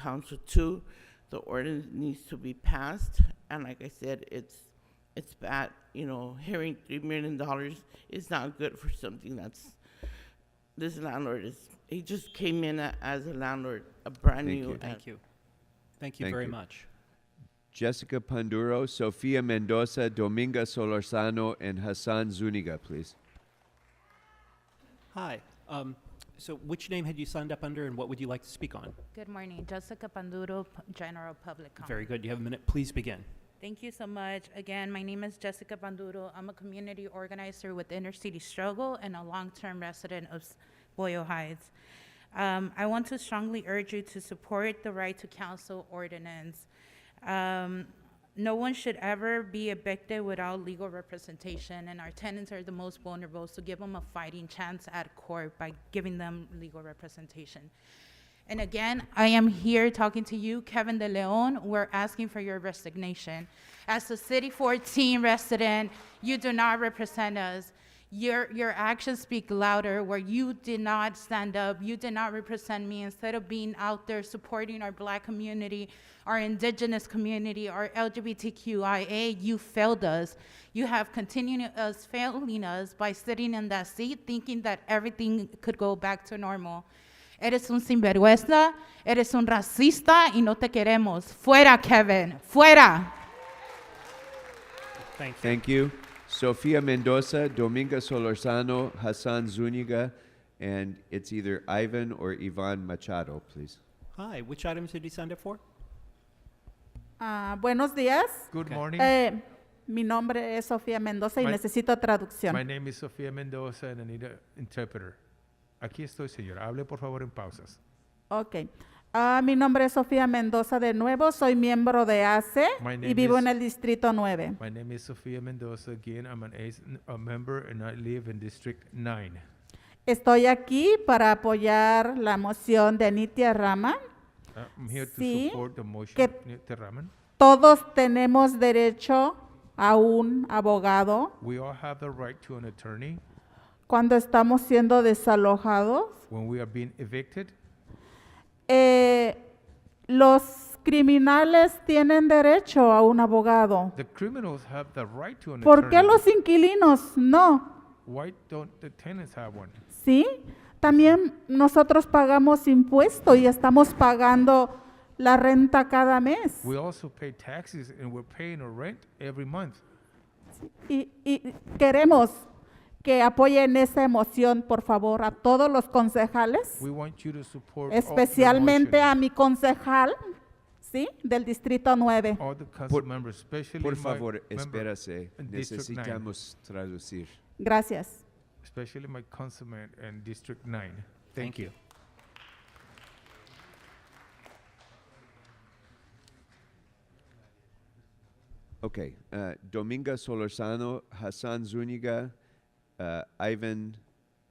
Council two, the ordinance needs to be passed, and like I said, it's, it's bad, you know, hearing three million dollars is not good for something that's, this landlord is, he just came in a- as a landlord, a brand Thank new. you. uh, Thank you. Thank you Thank very you. much. Jessica Panduro, Sofia Mendoza, Dominga Solorzano, and Hassan Zuniga, please. Hi. Um, so which name had you signed up under and what would you like to speak on? Good morning, Jessica Panduro, P- General Public Comment. Very good. You have a minute. Please begin. Thank you so much. Again, my name is Jessica Panduro. I'm a community organizer with Inner City Struggle and a long-term resident of S- Boyle Heights. Um, I want to strongly urge you to support the right to counsel ordinance. Um, no one should ever be evicted without legal representation, and our tenants are the most vulnerable, so give them a fighting chance at court by giving them legal representation. And again, I am here talking to you, Kevin De Leon. We're asking for your resignation. As a City 14 resident, you do not represent us. Your, your actions speak louder, where you did not stand up, you did not represent me. Instead of being out there supporting our black community, our indigenous community, our LGBTQIA, you failed us. You have continued us failing us by sitting in that seat thinking that everything could go back to normal. Eres un sinvergüenza, eres un racista y no te queremos. Fuera, Kevin, fuera. Thank you. Thank you. Sofia Mendoza, Dominga Solorzano, Hassan Zuniga, and it's either Ivan or Ivan Machado, please. Hi. Which items did you sign up for? Ah, buenos días. Good Okay. morning. Eh, mi nombre es Sofía Mendoza y My- necesito traducción. My name is Sofía Mendoza and I need an interpreter. Aquí estoy, señora. Hable por favor en pausas. ok. Ah, mi nombre es Sofía Mendoza de nuevo. Soy miembro de ACE My name y vivo is- en el Distrito 9. My name is Sofía Mendoza. Again, I'm an ACE n- a member and I live in District 9. Estoy aquí para apoyar la moción de Nitia Rama. Uh, I'm here to Sí. support the motion. Que- of Nita Raman. Todos tenemos derecho a un abogado We all have the right to an attorney cuando estamos siendo desalojados. when we are being evicted. Eh, los criminales tienen derecho a un abogado. The criminals have the right to an ¿Por qué attorney. los inquilinos no? Why don't the tenants have one? ¿Sí? También nosotros pagamos impuesto y estamos pagando la renta cada mes. We also pay taxes and we're paying our rent every month. Y, y queremos que apoyen esa emoción, por favor, a todos los concejales, We want you to support all the especialmente motion. a mi concejal, ¿sí? Del Distrito 9. All the council members, especially Por my favor, member espérase. in District nine, Necesitamos traducir. Gracias. Especially my councilman in District Nine. Thank you. Okay. Uh, Dominga Solorzano, Hassan Zuniga, uh, Ivan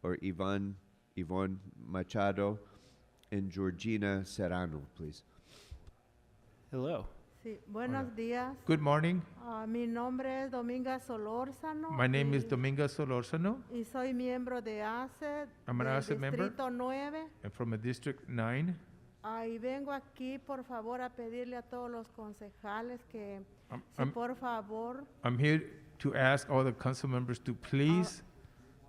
or Ivan, Yvonne Machado, and Georgina Serrano, please. Hello. Sí, buenos días. Good morning. Ah, mi nombre es Dominga Solórzano. My name is y- Dominga Solorzano. Y soy miembro de ACE. I'm an del ACE E member. Distrito 9. I'm from a District Nine. Ah, y vengo aquí, por favor, a pedirle a todos los concejales que, I'm, si I'm, por favor, I'm here to ask all the council members to please,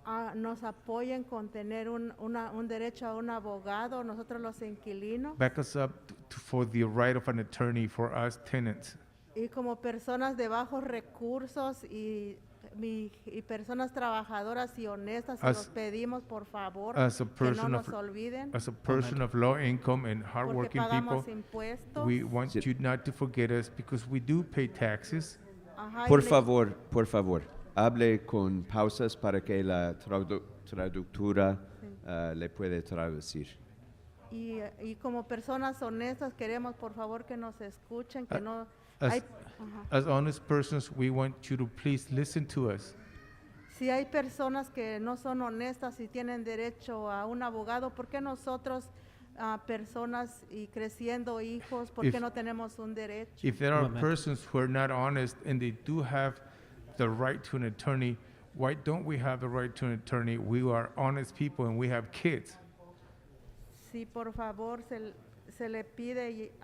ah, nos apoyen con tener un, una- un derecho a un abogado, nosotros los inquilinos, back us up t- to- for the right of an attorney for us tenants. y como personas de bajos recursos y, mi- y personas trabajadoras y honestas, y As- los pedimos, por favor, as a que no person of- nos olviden. As a person of low income and Porque hardworking people, pagamos impuestos. we want Sit. you not to forget us because we do pay taxes. Ajá, y Por le- favor, por favor, hable con pausas para que la tradu- traductora uh, le puede traducir. Y, y como personas honestas queremos por favor que nos escuchen, que Ah, no... As, hay- as honest persons, we want you to please listen to us. si hay personas que no son honestas y tienen derecho a un abogado, ¿por qué nosotros, ah, personas y creciendo hijos, por If- qué no tenemos un derecho? If there are Moment. persons who are not honest and they do have the right to an attorney, why don't we have the right to an attorney? We are honest people and we have kids. Sí, por favor, se, se le pide y